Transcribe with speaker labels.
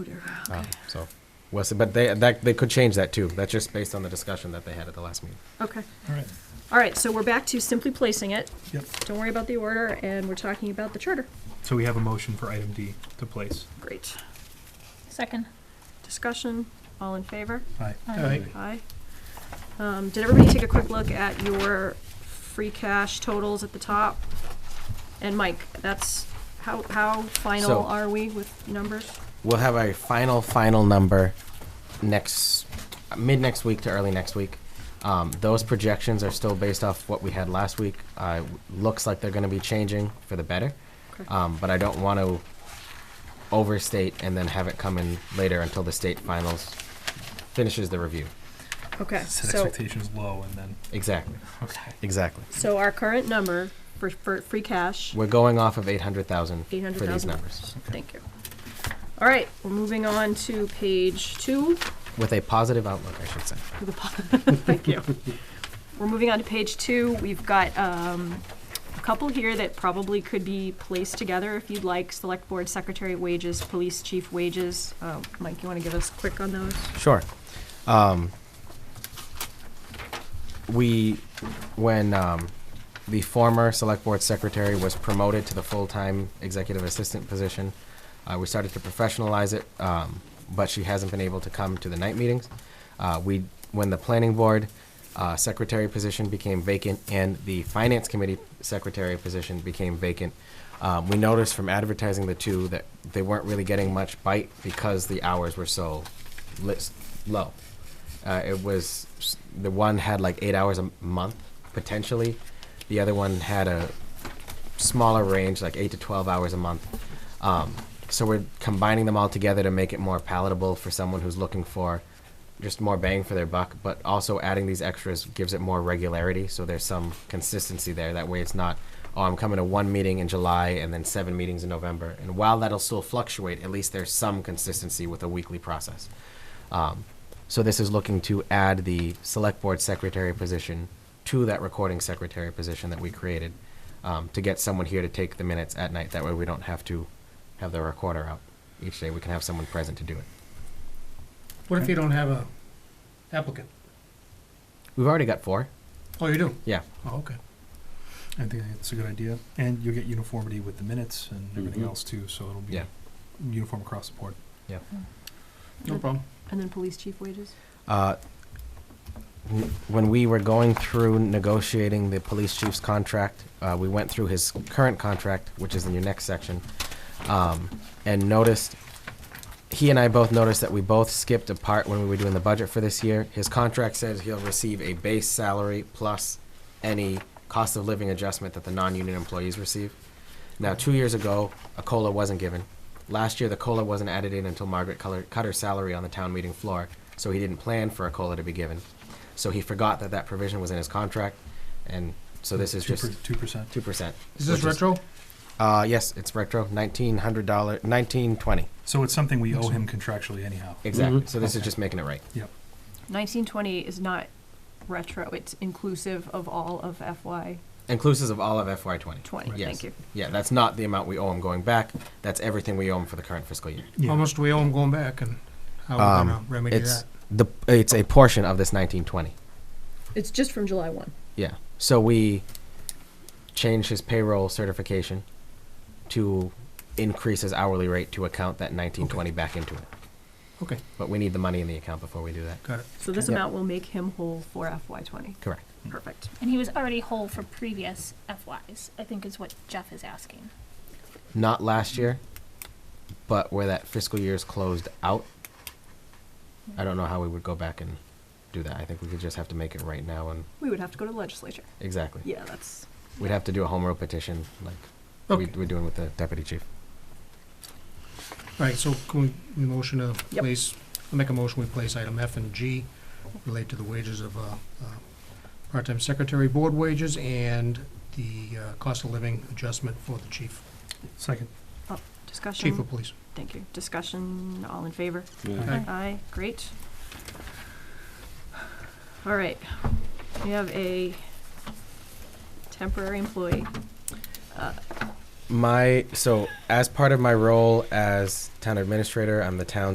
Speaker 1: Uh, So, Wes, but they, that, they could change that too. That's just based on the discussion that they had at the last meeting.
Speaker 2: Ah.
Speaker 3: Okay.
Speaker 2: All right,
Speaker 3: All right, so we're back to simply placing it.
Speaker 2: yep.
Speaker 3: Don't worry about the order, and we're talking about the charter.
Speaker 2: So we have a motion for item D to place.
Speaker 3: Great.
Speaker 4: Second.
Speaker 3: Discussion, all in favor?
Speaker 2: Aye.
Speaker 4: Aye.
Speaker 3: Aye. Um, did everybody take a quick look at your free cash totals at the top? And Mike, that's, how, how final
Speaker 1: So-
Speaker 3: are we with numbers?
Speaker 1: We'll have a final, final number next, mid next week to early next week. Um, those projections are still based off what we had last week. Uh, looks like they're going to be changing for the better.
Speaker 3: Okay.
Speaker 2: Uh,
Speaker 1: Um, but I don't want to overstate and then have it come in later until the state finals finishes the review.
Speaker 3: Okay,
Speaker 2: Set
Speaker 3: so,
Speaker 2: expectations low and then,
Speaker 1: Exactly.
Speaker 2: okay.
Speaker 1: Exactly.
Speaker 3: so our current number for, for free cash,
Speaker 1: We're going off of 800,000 for these
Speaker 3: 800,000.
Speaker 1: numbers
Speaker 3: thank you. All right, we're moving on to page two.
Speaker 1: with a positive outlook, I should say.
Speaker 3: Thank you. We're moving on to page two. We've got um, a couple here that probably could be placed together if you'd like. Select Board Secretary wages, Police Chief wages. Uh, Mike, you want to give us quick on those?
Speaker 1: Sure. Um, we, when um, the former select board secretary was promoted to the full-time executive assistant position, uh, we started to professionalize it, um, but she hasn't been able to come to the night meetings. Uh, we, when the planning board uh, secretary position became vacant and the finance committee secretary position became vacant, um, we noticed from advertising the two that they weren't really getting much bite because the hours were so list low. Uh, it was s- the one had like eight hours a m- month potentially. The other one had a smaller range, like eight to twelve hours a month. Um, so we're combining them all together to make it more palatable for someone who's looking for just more bang for their buck. But also adding these extras gives it more regularity, so there's some consistency there. That way, it's not oh I'm coming to one meeting in July and then seven meetings in November. And while that'll still fluctuate, at least there's some consistency with a weekly process. Um, so this is looking to add the select board secretary position to that recording secretary position that we created um, to get someone here to take the minutes at night. That way we don't have to have the recorder out each day. We can have someone present to do it.
Speaker 5: What if you don't have a applicant?
Speaker 1: We've already got four.
Speaker 5: Oh, you do?
Speaker 1: Yeah.
Speaker 5: Oh, okay.
Speaker 2: I think that's a good idea. And you'll get uniformity with the minutes and everything
Speaker 1: Mhm.
Speaker 2: else too, so it'll be
Speaker 1: Yeah.
Speaker 2: uniform across the board.
Speaker 5: No problem.
Speaker 3: And then Police Chief wages?
Speaker 1: Uh, n- When we were going through negotiating the police chief's contract, uh, we went through his current contract, which is in your next section, um, and noticed, he and I both noticed that we both skipped a part when we were doing the budget for this year. His contract says he'll receive a base salary plus any cost of living adjustment that the non-union employees receive. Now, two years ago, a COLA wasn't given. Last year, the COLA wasn't added in until Margaret Culler- cut her salary on the town meeting floor, so he didn't plan for a COLA to be given. So he forgot that that provision was in his contract, and so this is just
Speaker 2: Two percent.
Speaker 1: two percent.
Speaker 5: Is this retro?
Speaker 1: Uh, yes, it's retro, nineteen hundred dollar, nineteen twenty,
Speaker 2: So it's something we owe him contractually anyhow.
Speaker 1: exactly.
Speaker 5: Mhm.
Speaker 1: So this is
Speaker 2: Okay.
Speaker 1: just making it right.
Speaker 2: Yep.
Speaker 3: 1920 is not retro, it's inclusive of all of FY
Speaker 1: Inclusive of all of FY twenty.
Speaker 3: 20.
Speaker 1: Yes.
Speaker 3: Thank you.
Speaker 1: Yeah, that's not the amount we owe him going back. That's everything we owe him for the current fiscal year.
Speaker 2: Yeah.
Speaker 5: How much do we owe 'em going back and how are
Speaker 1: Um,
Speaker 5: we gonna remedy
Speaker 1: It's
Speaker 5: that?
Speaker 1: the it's a portion of this nineteen twenty.
Speaker 3: It's just from July 1.
Speaker 1: Yeah. So we changed his payroll certification to increase his hourly rate to account that nineteen twenty back into it.
Speaker 5: Okay,
Speaker 1: But we need the money in the account before we do that.
Speaker 5: got it.
Speaker 3: So this
Speaker 1: Yep.
Speaker 3: amount will make him whole for FY 20.
Speaker 1: Correct.
Speaker 3: Perfect.
Speaker 4: And he was already whole for previous FYs, I think is what Jeff is asking.
Speaker 1: Not last year, but where that fiscal year is closed out. I don't know how we would go back and do that. I think we could just have to make it right now and
Speaker 3: We would have to go to the legislature.
Speaker 1: exactly.
Speaker 3: Yeah, that's,
Speaker 1: We'd have to do a home rule petition like we,
Speaker 5: Okay,
Speaker 1: we're doing with the deputy chief.
Speaker 5: all right, so can we- we motion to
Speaker 3: Yep.
Speaker 5: place, I'll make a motion, we place item F and G relate to the wages of, uh, uh, part-time secretary board wages and the, uh, cost of living adjustment for the chief,
Speaker 2: Second.
Speaker 3: discussion.
Speaker 5: chief of police.
Speaker 3: Thank you. Discussion, all in favor?
Speaker 4: Aye.
Speaker 3: Aye, great. All right, we have a temporary employee. Uh,
Speaker 1: My so as part of my role as town administrator, I'm the town